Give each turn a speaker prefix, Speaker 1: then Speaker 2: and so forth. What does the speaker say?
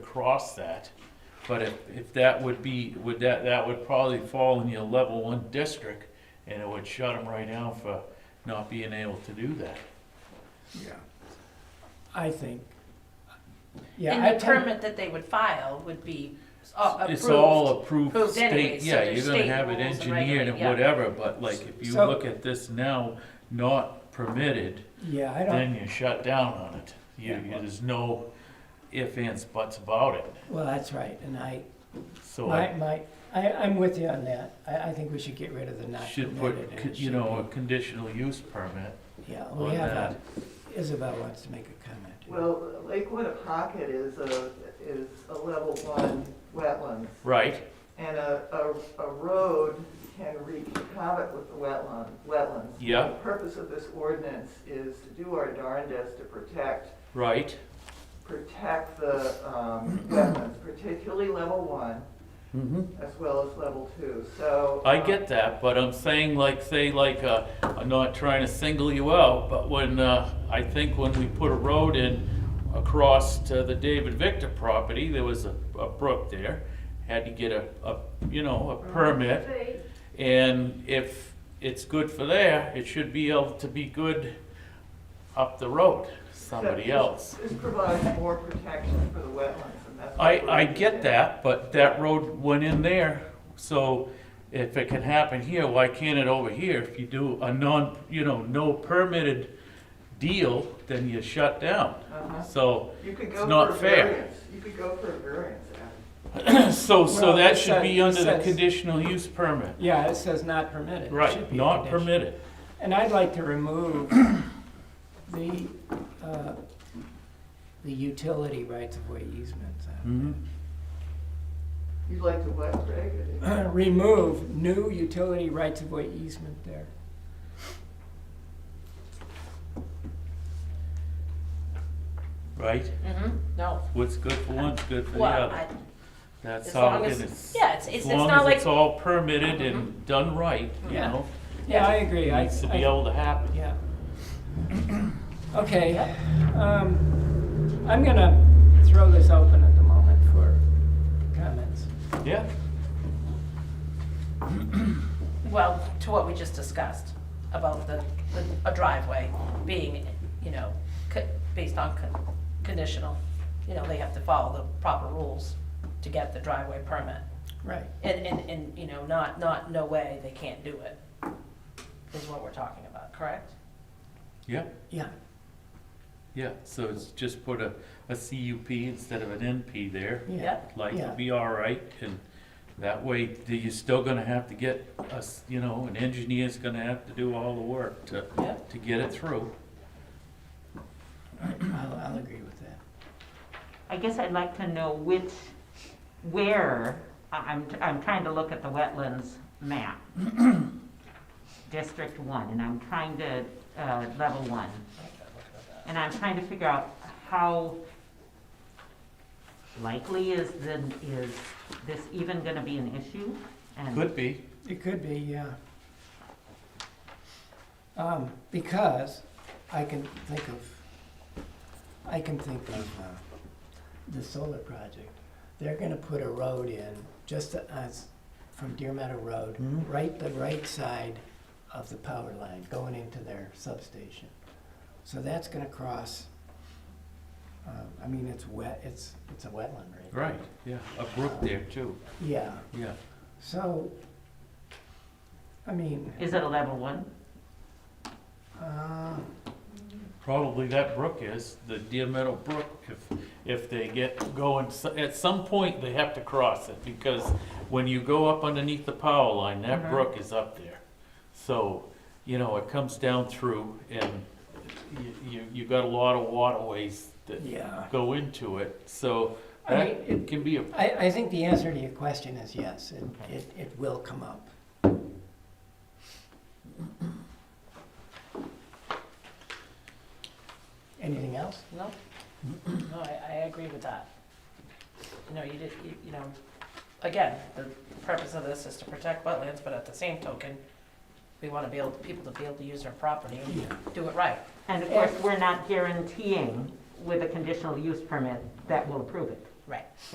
Speaker 1: across that. But if, if that would be, would that, that would probably fall in your level one district, and it would shut them right down for not being able to do that.
Speaker 2: Yeah.
Speaker 3: I think. Yeah, I
Speaker 4: And the
Speaker 3: tend,
Speaker 4: permit that they would file would be s- uh, approved.
Speaker 1: It's all approved
Speaker 4: Approved anyway,
Speaker 1: state,
Speaker 4: so
Speaker 1: yeah,
Speaker 4: there's
Speaker 1: you're gonna
Speaker 4: state
Speaker 1: have it
Speaker 4: rules and
Speaker 1: engineered and
Speaker 4: regulations, yeah.
Speaker 1: whatever, but like, if you
Speaker 3: So-
Speaker 1: look at this now, not permitted,
Speaker 3: yeah, I don't,
Speaker 1: then you shut down on it. You,
Speaker 3: Yeah.
Speaker 1: you- there's no ifs, ands, buts about it,
Speaker 3: well, that's right, and I,
Speaker 1: so. I-
Speaker 3: my, my, I, I'm with you on that. I, I think we should get rid of the not
Speaker 1: Should put,
Speaker 3: permitted. and it
Speaker 1: con- you
Speaker 3: should
Speaker 1: know, a
Speaker 3: be- Oh,
Speaker 1: conditional use permit
Speaker 3: Yeah, we
Speaker 1: on
Speaker 3: have,
Speaker 1: that.
Speaker 3: a- Isabel wants to make a comment.
Speaker 5: Well, Lakewood Pocket is a, is a level one wetlands,
Speaker 1: Right,
Speaker 5: and a, a, a road can wreak havoc with the wetland, wetlands.
Speaker 1: yeah,
Speaker 5: The purpose of this ordinance is to do our darndest to protect,
Speaker 1: right,
Speaker 5: protect the, um, wetlands, particularly level one, as well as level two, so.
Speaker 1: Mm-hmm. I
Speaker 5: um,
Speaker 1: get that, but I'm saying like, say like, uh, I'm not trying to single you out, but when, uh, I think when we put a road in across to the David Victor property, there was a, a brook there, had to get a, a, you know, a permit. And if it's good for there, it should be able to be good up the road, somebody
Speaker 5: this-
Speaker 1: else.
Speaker 5: This provides more protection for the wetlands, and that's. what
Speaker 1: I,
Speaker 5: we're
Speaker 1: I get
Speaker 5: doing.
Speaker 1: that, but that road went in there, so if it can happen here, why can't it over here? If you do a non, you know, no permitted deal, then you shut down.
Speaker 5: Uh-huh.
Speaker 1: So,
Speaker 5: You could
Speaker 1: It's
Speaker 5: go
Speaker 1: not
Speaker 5: for a
Speaker 1: fair.
Speaker 5: variance, you could go for a variance, Adam.
Speaker 1: so, so
Speaker 3: Well,
Speaker 1: that
Speaker 3: it
Speaker 1: should be
Speaker 3: says-
Speaker 1: under
Speaker 3: it
Speaker 1: the
Speaker 3: says-
Speaker 1: conditional use permit.
Speaker 3: Yeah, it says not permitted. It should
Speaker 1: Right,
Speaker 3: be a
Speaker 1: not
Speaker 3: condition.
Speaker 1: permitted.
Speaker 3: And I'd like to remove the, uh, the utility rights of way easements.
Speaker 1: Mm-hmm.
Speaker 5: You'd like to what, Greg?
Speaker 1: Mm.
Speaker 3: Remove new utility rights of way easement there.
Speaker 1: Right?
Speaker 3: Mm-hmm.
Speaker 4: Mhm, no,
Speaker 1: What's good for one's good for the
Speaker 4: well,
Speaker 1: other.
Speaker 4: I,
Speaker 1: That's
Speaker 4: as
Speaker 1: how,
Speaker 4: long
Speaker 1: and
Speaker 4: as,
Speaker 1: it's,
Speaker 4: yeah, it's,
Speaker 1: as
Speaker 4: it's, it's
Speaker 1: long
Speaker 4: not
Speaker 1: as
Speaker 4: like,
Speaker 1: it's all permitted and done right, you
Speaker 3: Mm-hmm. Yeah.
Speaker 1: know,
Speaker 3: Yeah, I agree.
Speaker 1: it
Speaker 3: I-
Speaker 1: needs to
Speaker 3: I-
Speaker 1: be able to happen.
Speaker 3: Yeah. Okay, um, I'm gonna throw this open at the moment for comments.
Speaker 1: Yeah,
Speaker 4: well, to what we just discussed about the, the- a driveway being, you know, co- based on con- conditional. You know, they have to follow the proper rules to get the driveway permit.
Speaker 3: Right.
Speaker 4: And, and, and, you know, not, not, no way, they can't do it, is what we're talking about, correct?
Speaker 1: yeah.
Speaker 3: Yeah,
Speaker 1: Yeah, so it's just put a, a CUP instead of an NP there,
Speaker 3: yeah.
Speaker 1: like,
Speaker 3: Yeah.
Speaker 1: it'll be all right, and that way, th- you're still gonna have to get us, you know, an engineer's gonna have to do all the work to,
Speaker 4: Yeah.
Speaker 1: to get it through.
Speaker 3: I'll, I'll agree with that.
Speaker 6: I guess I'd like to know which, where, I- I'm, I'm trying to look at the wetlands map. District one, and I'm trying to, uh, level one. And I'm trying to figure out how likely is the, is this even gonna be an issue? And-
Speaker 1: Could be,
Speaker 3: It could be, yeah. Um, because I can think of, I can think of, uh, the solar project. They're gonna put a road in, just as, from Deer Meadow Road,
Speaker 1: Mhm.
Speaker 3: right, the right side of the power line, going into their substation. So that's gonna cross, um, I mean, it's wet, it's, it's a wetland, right?
Speaker 1: right, yeah, a brook there too,
Speaker 3: Yeah,
Speaker 1: yeah.
Speaker 3: so, I mean.
Speaker 6: Is it a level one?
Speaker 3: Uh,
Speaker 1: Probably that brook is, the Deer Meadow Brook, if, if they get going, s- at some point, they have to cross it, because when you go up underneath the power line, that
Speaker 6: Mhm.
Speaker 3: Mm-hmm.
Speaker 1: brook is up there. So, you know, it comes down through, and you, you, you got a lot of waterways that
Speaker 3: Yeah.
Speaker 1: go into it, so
Speaker 3: I
Speaker 1: that
Speaker 3: mean,
Speaker 1: can be a
Speaker 3: I, I think the answer to your question is yes, it, it, it will come up. Anything else?
Speaker 4: No? No, I, I agree with that. You know, you did, you, you know, again, the purpose of this is to protect wetlands, but at the same token, we wanna be able, people to be able to use their property and
Speaker 3: Yeah.
Speaker 4: do it right.
Speaker 6: And of course, we're not guaranteeing with a conditional use permit that we'll approve it.
Speaker 4: right.